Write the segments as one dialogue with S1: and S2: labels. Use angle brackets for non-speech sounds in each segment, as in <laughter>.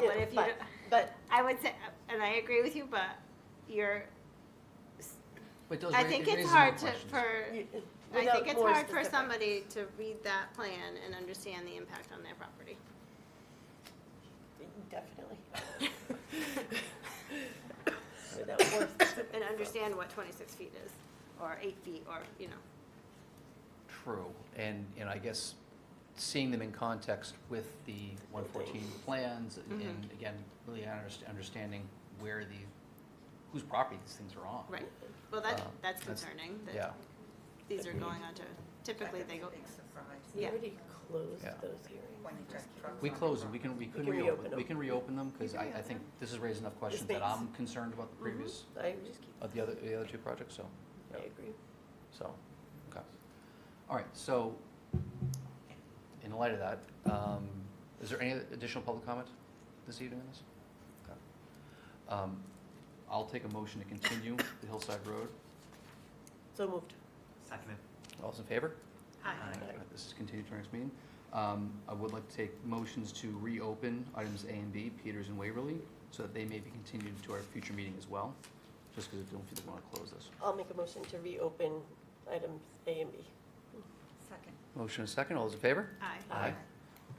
S1: but if you,
S2: but-
S1: don't-
S2: But,
S1: I would say, and I agree with you, but you're,
S3: But those
S1: I
S3: ra-
S1: think
S3: it
S1: it's
S3: raises
S1: hard
S3: more
S1: to,
S3: questions.
S1: for,
S2: you-
S1: I
S2: without
S1: think it's
S2: more
S1: hard for
S2: specific.
S1: somebody to read that plan and understand the impact on their property. <laughs>
S2: Definitely. Without more specific.
S1: And understand what twenty-six feet is, or eight feet, or, you know.
S3: True, and, and I guess seeing them in context with the one fourteen plans,
S1: Mm-hmm.
S3: and again, really underst- understanding where the, whose property these things are on.
S1: Right, well, that,
S3: Um,
S1: that's
S3: that's-
S1: concerning,
S3: Yeah,
S1: that these are going on to, typically they go,
S2: We
S1: Yeah.
S2: already closed
S3: Yeah.
S2: those hearings.
S3: we closed, we can, we can
S2: can reopen
S3: reopen,
S2: them.
S3: we can reopen them, because I, I think this has raised enough questions that
S2: makes-
S3: I'm concerned about
S1: Mm-hmm.
S3: the previous,
S2: I just keep,
S3: of Uh, the other, the other two projects, so,
S2: I
S3: yeah,
S2: agree.
S3: so, okay. All right, so, in light of that, um, is there any additional public comment this evening on this? Okay. Um, I'll take a motion to continue the Hillside Road.
S2: So moved.
S4: Seconded.
S3: All those in favor?
S1: aye.
S4: Aye.
S3: This is continued to our next meeting. Um, I would like to take motions to reopen items A and B, Peters and Waverly, so that they may be continued to our future meeting as well, just because I don't feel we want to close this.
S2: I'll make a motion to reopen items A and B.
S5: Second.
S3: Motion and second, all those in favor?
S1: Aye.
S3: Aye.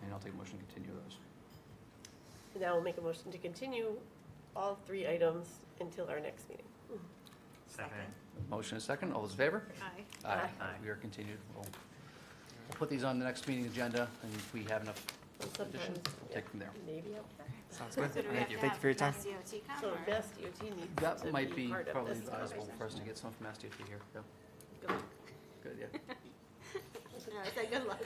S3: And I'll take a motion to continue those.
S2: Now I'll make a motion to continue all three items until our next meeting.
S4: Seconded.
S3: Motion and second, all those in favor?
S1: Aye.
S2: Aye.
S4: Aye.
S3: We are continued. We'll we'll put these on the next meeting agenda, and if we have enough additions,
S2: Sometimes,
S3: we'll
S2: yeah,
S3: take from there.
S2: maybe. I'll-
S4: Sounds
S1: So do we have
S3: Thank
S1: to
S3: you.
S4: Thank you for your
S1: have
S4: time.
S1: Mass DOT come,
S2: So
S1: or-
S2: Mass DOT needs
S3: That
S2: to
S3: might
S2: be
S3: be
S2: part of
S3: probably
S2: this.
S3: advisable for us to get someone from Mass DOT here. Yeah,
S2: Go.
S3: Good, yeah. <laughs>
S1: No, it's like, good luck,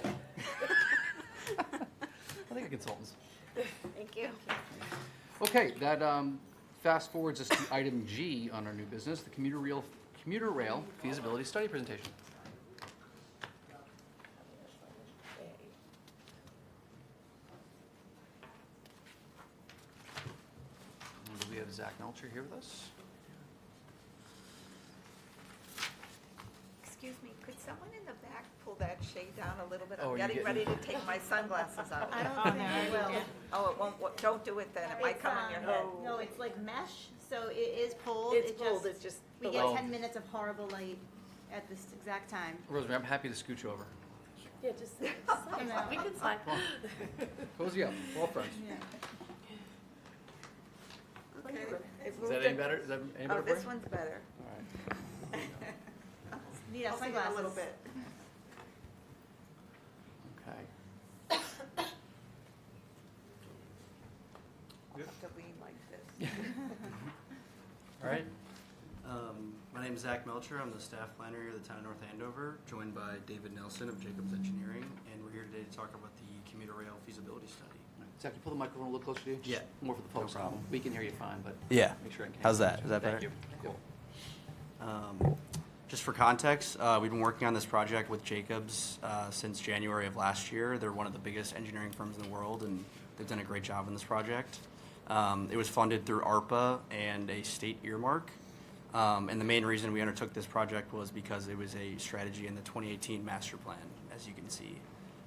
S3: I think a consultant's
S1: thank you.
S3: Okay, that um, fast forwards us to item G on our new business, the commuter rail, commuter rail feasibility study presentation. And Do we have Zach Melcher here with us?
S5: Excuse me, could someone in the back pull that shade down a little bit?
S3: Oh, are
S5: I'm
S3: you
S5: getting ready to
S3: getting-
S5: take my sunglasses off.
S1: I don't think I will.
S5: Oh, it won't, wo- don't do it then, it might
S1: It's,
S5: come on your
S1: um,
S5: head.
S1: No, it's like mesh, so it is pulled.
S2: It's
S1: it
S2: pulled,
S1: just-
S2: it's just
S1: We
S3: below.
S1: get ten minutes of horrible light at this exact time.
S3: Rosemary, I'm happy to scooch over.
S2: Yeah, just, <laughs> just
S1: And
S2: slide.
S1: then-
S2: we can slide.
S3: Cozy up, all friends.
S1: uh,
S5: Okay.
S1: Oh.
S3: Is
S5: it moved
S3: that
S5: it.
S3: any better? Is that any
S5: Oh,
S3: better for you?
S5: this one's better.
S3: All right.
S1: Need our
S5: I'll see you in a little
S1: sunglasses.
S5: bit.
S3: Okay.
S5: I'll have to lean like this.
S3: All right.
S6: Um, my name is Zach Melcher. I'm the staff planner here at the town of North Andover, joined by David Nelson of Jacobs Engineering, and we're here today to talk about the commuter rail feasibility study.
S3: Zach, can you pull the microphone a little closer to you? Just
S6: Yeah.
S3: More for the folks. at home.
S6: problem.
S3: We can hear you fine, but.
S6: Yeah.
S3: Make sure I can.
S6: How's that? Is that
S3: Thank
S6: better?
S3: you. Cool.
S6: Um, Just for context, uh, we've been working on this project with Jacobs uh, since January of last year. They're one of the biggest engineering firms in the world, and they've done a great job on this project. Um, It was funded through ARPA and a state earmark. Um, And the main reason we undertook this project was because it was a strategy in the 2018 master plan, as you can see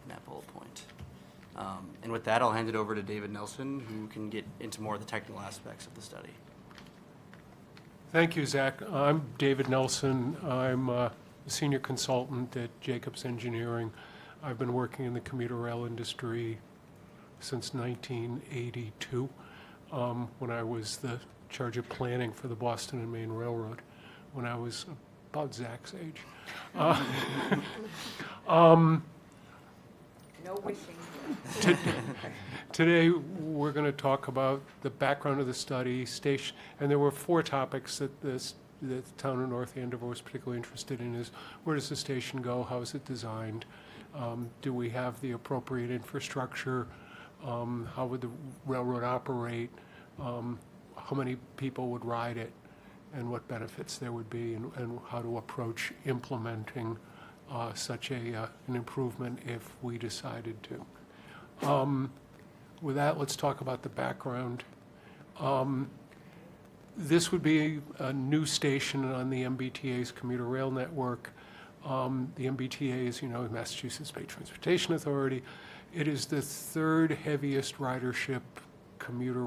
S6: in that bullet point. Um, And with that, I'll hand it over to David Nelson, who can get into more of the technical aspects of the study.
S7: Thank you, Zach. I'm David Nelson. I'm uh, a senior consultant at Jacobs Engineering. I've been working in the commuter rail industry since 1982, um, when I was the charge of planning for the Boston and Maine Railroad, when I was about Zach's age.
S5: No wishing.
S7: Today, we're going to talk about the background of the study, station, and there were four topics that this, that the town of North Andover was particularly interested in, is where does the station go, how is it designed? Um, Do we have the appropriate infrastructure? Um, How would the railroad operate? Um, How many people would ride it? And what benefits there would be, and, and how to approach implementing uh, such a, uh, an improvement if we decided to. With that, let's talk about the background. Um, This would be a new station on the MBTA's commuter rail network. Um, The MBTA is, you know, Massachusetts Bay Transportation Authority. It is the third heaviest ridership commuter